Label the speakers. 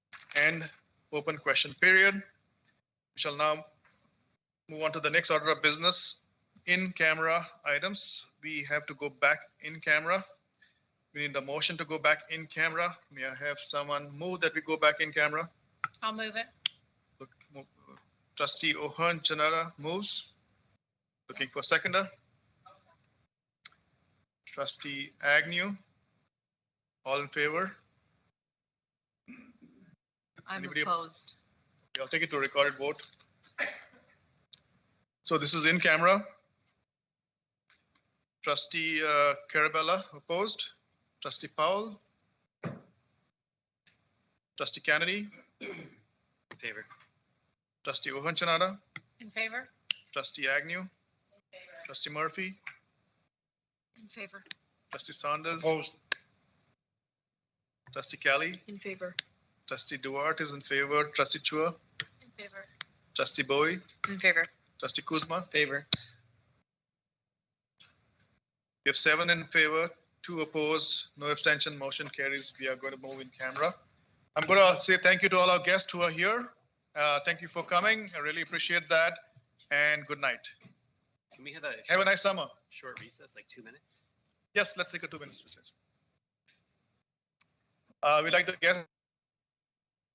Speaker 1: end open question period. We shall now move on to the next order of business, in-camera items. We have to go back in camera. We need a motion to go back in camera. May I have someone move that we go back in camera?
Speaker 2: I'll move it.
Speaker 1: Look, mo- Trustee O'Hearn Janara moves. Looking for seconder. Trustee Agnew. All in favor?
Speaker 2: I'm
Speaker 1: Anybody-
Speaker 2: opposed.
Speaker 1: I'll take it to a recorded vote. So this is in camera. Trustee uh, Carabella opposed. Trustee Powell. Trustee Kennedy.
Speaker 3: Favor.
Speaker 1: Trustee Ohonchanada.
Speaker 2: In favor?
Speaker 1: Trustee Agnew. Trustee Murphy.
Speaker 2: In favor.
Speaker 1: Trustee Saunders.
Speaker 3: Opposed.
Speaker 1: Trustee Kelly.
Speaker 2: In favor.
Speaker 1: Trustee Duarte is in favor. Trustee Chua.
Speaker 2: In favor.
Speaker 1: Trustee Bowie.
Speaker 2: In favor.
Speaker 1: Trustee Kuzma.
Speaker 3: Favor.
Speaker 1: We have seven in favor, two opposed, no abstention, motion carries. We are going to move in camera. I'm going to say thank you to all our guests who are here. Uh, Thank you for coming. I really appreciate that. And good night.
Speaker 3: Can we have a
Speaker 1: Have a nice summer.
Speaker 3: short recess, like two minutes?
Speaker 1: Yes, let's take a two minutes recess. Uh, We'd like the guests